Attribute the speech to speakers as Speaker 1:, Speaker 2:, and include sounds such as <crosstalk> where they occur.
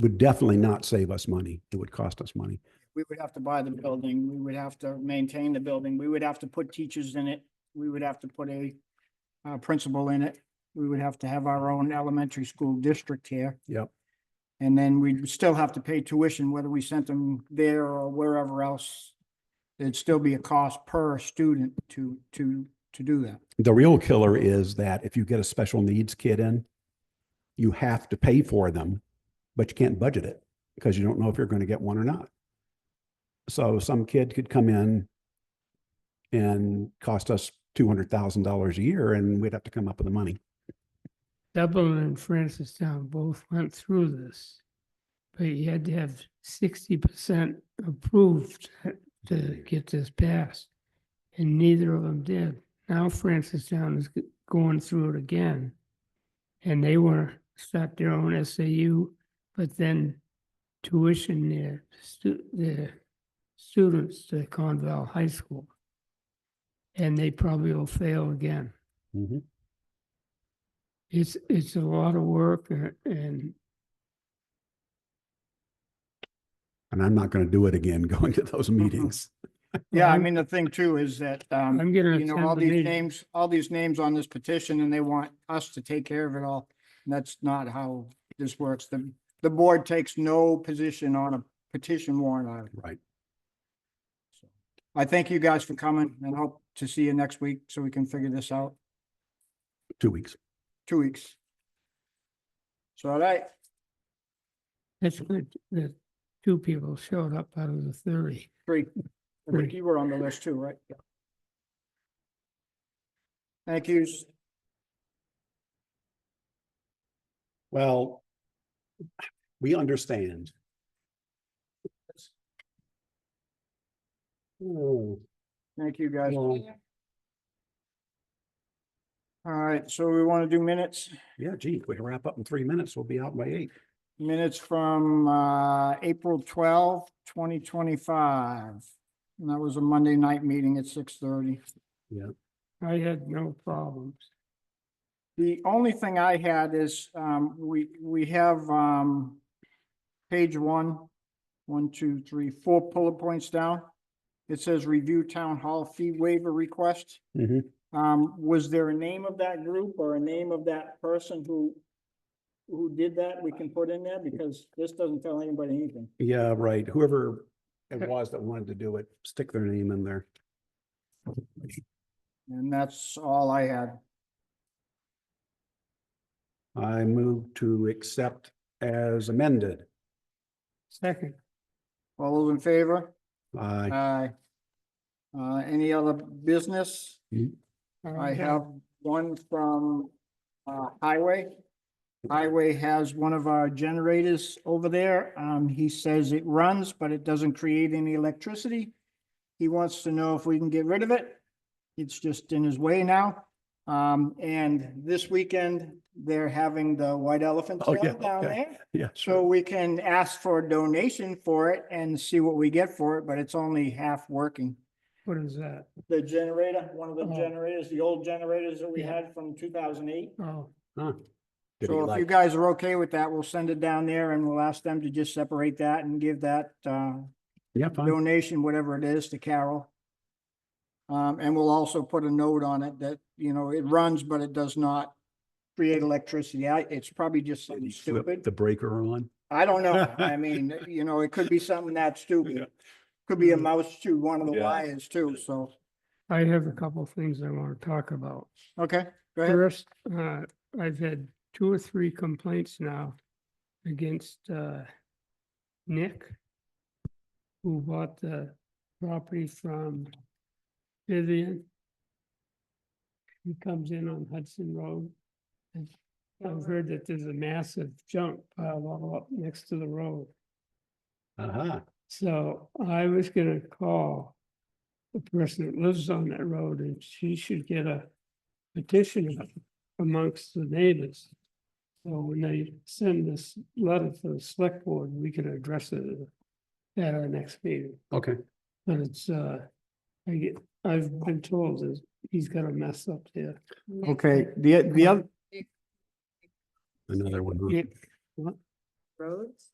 Speaker 1: would definitely not save us money. It would cost us money.
Speaker 2: We would have to buy the building, we would have to maintain the building, we would have to put teachers in it, we would have to put a uh, principal in it, we would have to have our own elementary school district here.
Speaker 1: Yep.
Speaker 2: And then we'd still have to pay tuition, whether we sent them there or wherever else. There'd still be a cost per student to, to, to do that.
Speaker 1: The real killer is that if you get a special needs kid in, you have to pay for them, but you can't budget it because you don't know if you're going to get one or not. So some kid could come in and cost us two hundred thousand dollars a year and we'd have to come up with the money.
Speaker 3: Dublin and Francistown both went through this. But you had to have sixty percent approved to get this passed. And neither of them did. Now Francistown is g- going through it again. And they want to start their own SAU, but then tuition their stu- their students to Conval High School. And they probably will fail again. It's, it's a lot of work a- and
Speaker 1: And I'm not going to do it again <laughs> going to those meetings.
Speaker 2: Yeah, I
Speaker 3: I'm-
Speaker 2: mean, the thing too is that, um,
Speaker 3: I'm gonna
Speaker 2: you know, all
Speaker 3: attend the
Speaker 2: these
Speaker 3: meeting.
Speaker 2: names, all these names on this petition and they want us to take care of it all. And that's not how this works. The, the board takes no position on a petition warrant item.
Speaker 1: Right.
Speaker 2: I thank you guys for coming and hope to see you next week so we can figure this out.
Speaker 1: Two weeks.
Speaker 2: Two weeks. So, all right,
Speaker 3: That's good that two people showed up out of the thirty.
Speaker 2: three. I think
Speaker 3: Three.
Speaker 2: you were on the list too, right? Yeah. Thank yous.
Speaker 1: Well, we understand. Oh,
Speaker 2: Thank you guys. All
Speaker 1: well,
Speaker 2: right, so we want to do minutes.
Speaker 1: Yeah, gee, if we can wrap up in three minutes, we'll be out by eight.
Speaker 2: Minutes from uh April twelfth, twenty twenty-five. And that was a Monday night meeting at six thirty.
Speaker 3: I had no problems.
Speaker 2: The only thing I had is um we we have um page one, one, two, three, four bullet points down. It says review town hall fee waiver request. Um, was there a name of that group or a name of that person who who did that we can put in there? Because this doesn't tell anybody anything.
Speaker 1: Yeah, right. Whoever it was that wanted to do it, stick their name in there.
Speaker 2: And that's all I had.
Speaker 1: I move to accept as amended.
Speaker 3: Second,
Speaker 2: All those in favor?
Speaker 1: <laughs> I
Speaker 2: Aye. Uh, any other business? I
Speaker 1: Uh,
Speaker 3: I
Speaker 2: have one from, uh, Highway. Highway has one of our generators over there. Um, he says it runs, but it doesn't create any electricity. He wants to know if we can get rid of it. It's just in his way now. Um, and this weekend, they're having the White Elephant
Speaker 1: Oh, yeah,
Speaker 2: Sale down
Speaker 1: okay.
Speaker 2: there.
Speaker 1: yeah,
Speaker 2: So
Speaker 1: sure.
Speaker 2: we can ask for a donation for it and see what we get for it, but it's only half working.
Speaker 3: What is that?
Speaker 2: The generator, one of the
Speaker 3: Oh.
Speaker 2: generators, the old generators that we
Speaker 3: Yeah.
Speaker 2: had from two thousand eight.
Speaker 3: Oh,
Speaker 1: Huh. Did he
Speaker 2: So if you
Speaker 1: like-
Speaker 2: guys are okay with that, we'll send it down there and we'll ask them to just separate that and give that uh
Speaker 1: Yeah, fine.
Speaker 2: donation, whatever it is, to Carol. Um, and we'll also put a note on it that, you know, it runs, but it does not create electricity. I, it's probably just
Speaker 1: Did
Speaker 2: something
Speaker 1: he flip
Speaker 2: stupid.
Speaker 1: The breaker on.
Speaker 2: I don't know. I mean, you know, it could be something that
Speaker 1: Yeah.
Speaker 2: stupid. Could be a mouse to one of the
Speaker 1: Yeah.
Speaker 2: wires too, so,
Speaker 3: I have a couple of things I want to talk about.
Speaker 2: okay, go ahead.
Speaker 3: First, uh, I've had two or three complaints now against, uh, Nick, who bought the property from Vivian. He comes in on Hudson Road. and I've heard that there's a massive junk pile all up next to the road.
Speaker 1: Uh-huh.
Speaker 3: So I was gonna call the person that lives on that road and she should get a petition up amongst the neighbors. So when they send this letter to the select board, we can address it at our next meeting.
Speaker 1: Okay.
Speaker 3: But it's, uh, I get, I've been told that he's got a mess up there.
Speaker 2: Okay, the, the other,
Speaker 1: Another one. huh?
Speaker 3: Yeah,
Speaker 4: roads?